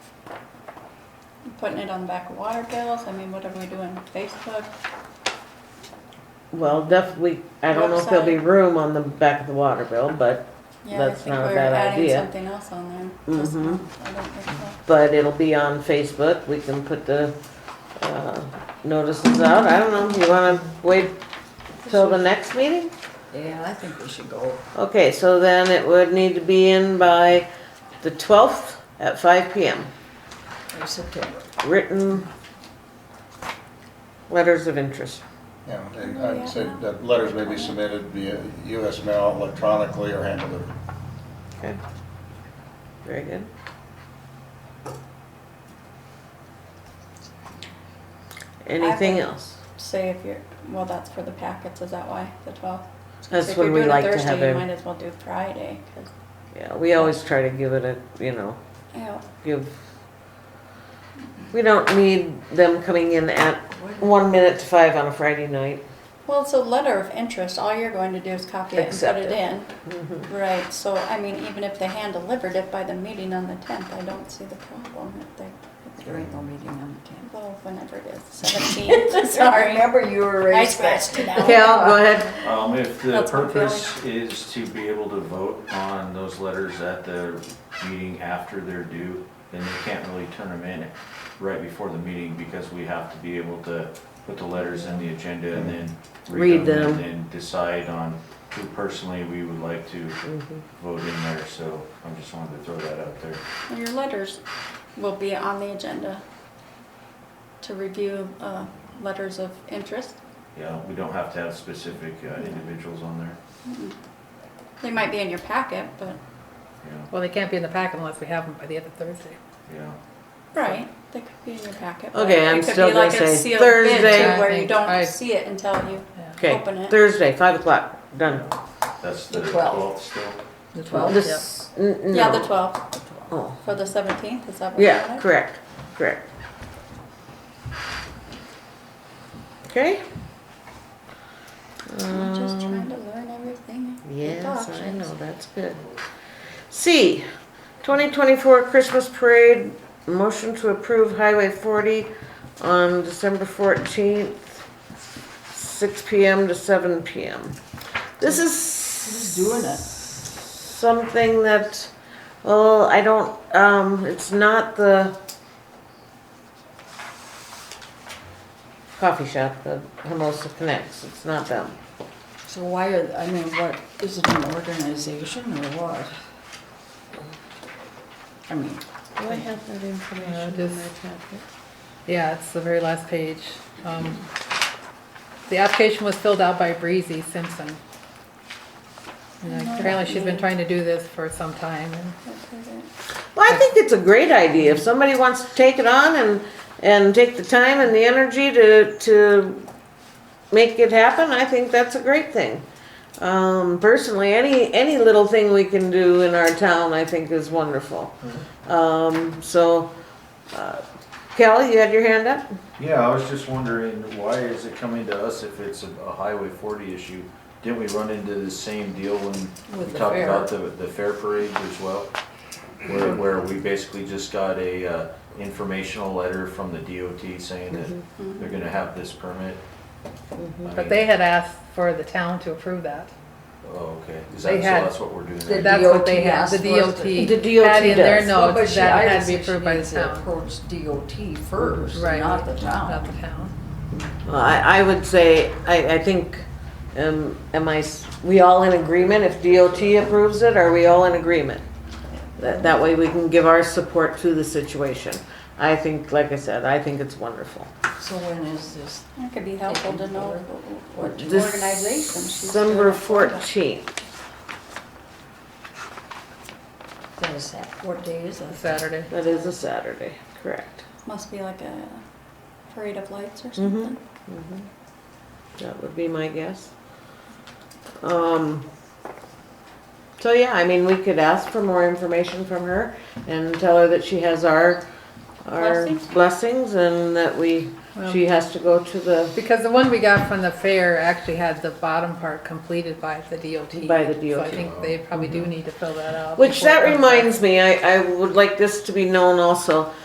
putting it on the back of water bills? I mean, what are we doing? Facebook? Well, definitely, I don't know if there'll be Website. room on the back of the water bill, but, Yeah, I That's think not a we're bad adding idea. Something else on there. Just- Mhm. I don't think so. but it'll be on Facebook. We can put the, uh, notices out. I don't know. You wanna wait till the next meeting? Yeah, I think we should go. Okay, so then it would need to be in by the twelfth at five P M. in September. Written letters of interest. Yeah, and I said that letters may be submitted via US mail electronically or hand delivered. Okay. Very good. Anything else? Say if you're, well, that's for the packets, is that why, the twelfth? That's when we like to If you're have doing it Thursday, you it. might as well do Friday, 'cause, Yeah, we always try to give it a, you know, you know, give. We don't need them coming in at one minute to five on a Friday night. well, it's a letter of interest, all you're going to do is copy it and put Accept it it. in. Mm-hmm. Right, so, I mean, even if they hand delivered it by the meeting on the tenth, I don't see the problem if they, There ain't no meeting on the tenth. well, whenever it is, seventeenth, sorry. Remember you were I raised. scratched it out. Cal, go ahead. Um, if the That's my purpose is to be able to vote on those letters at the meeting after they're due, then you can't really turn them in right before the meeting because we have to be able to put the letters in the agenda and then Read read them them. and then decide on who personally we would like to Mm-hmm. vote in there, so I just wanted to throw that out there. Well, Your letters will be on the agenda to review uh, letters of interest. Yeah, we don't have to have specific uh, individuals on there, They might be in your packet, but, yeah, Well, they can't be in the packet unless we have them by the end of Thursday. yeah. right, they could be in your packet. but Okay, I'm it could still be like gonna a say sealed bid, too, Thursday. Where you I- don't see it until you Yeah. Okay, open it. Thursday, five o'clock, done. That's the The 12th. twelfth still. The Well, twelfth, this, n- no. Yeah, the 12th Oh, for the 17th, is that what you yeah, correct, correct. Okay? I'm just Um, trying to learn everything. the Yes, I options. know, that's good. C, twenty twenty-four Christmas Parade, motion to approve Highway forty on December fourteenth, six P M. to seven P M. This is. Who's doing it? Something that, well, I don't, um, it's not the coffee shop, the Hermosa Connects, it's not them. so why are, I mean, what, is it an organization or what? I mean, Do I have that Yeah, information in my just- packet? Yeah, it's the very last page. Um, The application was filled out by Breezy Simpson. And Apparently, she's been trying to do this for some time. and- Well, I think it's a great idea. If somebody wants to take it on and, and take the time and the energy to, to make it happen, I think that's a great thing. Um, personally, any, any little thing we can do in our town, I think is wonderful. Um, so, uh, Kelly, you had your hand up? Yeah, I was just wondering, why is it coming to us if it's a a Highway 40 issue? Didn't we run into the same deal when With we the talked fair. about the, the fair parade as well? Where, where we basically just got a uh, informational letter from the DOT saying that they're gonna have this permit? I But mean, they had asked for the town to approve that. Oh, okay, is they that, so had- that's what we're doing The right now? That's what they DOT had, the asked for us to- DOT. The DOT Had in their does. well, but notes she, that it I had to would be say she approved by the needs to town. approach DOT first, Right. not the Not town. the town. Well, I, I would say, I, I think, um, am I, s- we all in agreement? If DOT approves it, are we all in agreement? That, that way we can give our support to the situation. I think, like I said, I think it's wonderful. So when is this? It could be helpful to know what organization she's doing December it for. fourteenth, That is that, what day is that? Saturday. that is a Saturday, correct. Must be like a parade of lights or Mhm. something. That would be my guess. Um, so yeah, I mean, we could ask for more information from her and tell her that she has our, our Blessings? blessings and that we, she has to go to the, Because the one we got from the fair actually had the bottom part completed by the DOT. By the So DOT. I think they probably do need to fill that out. Mm-hmm. which before it that comes back. reminds me, I, I would like this to be known also.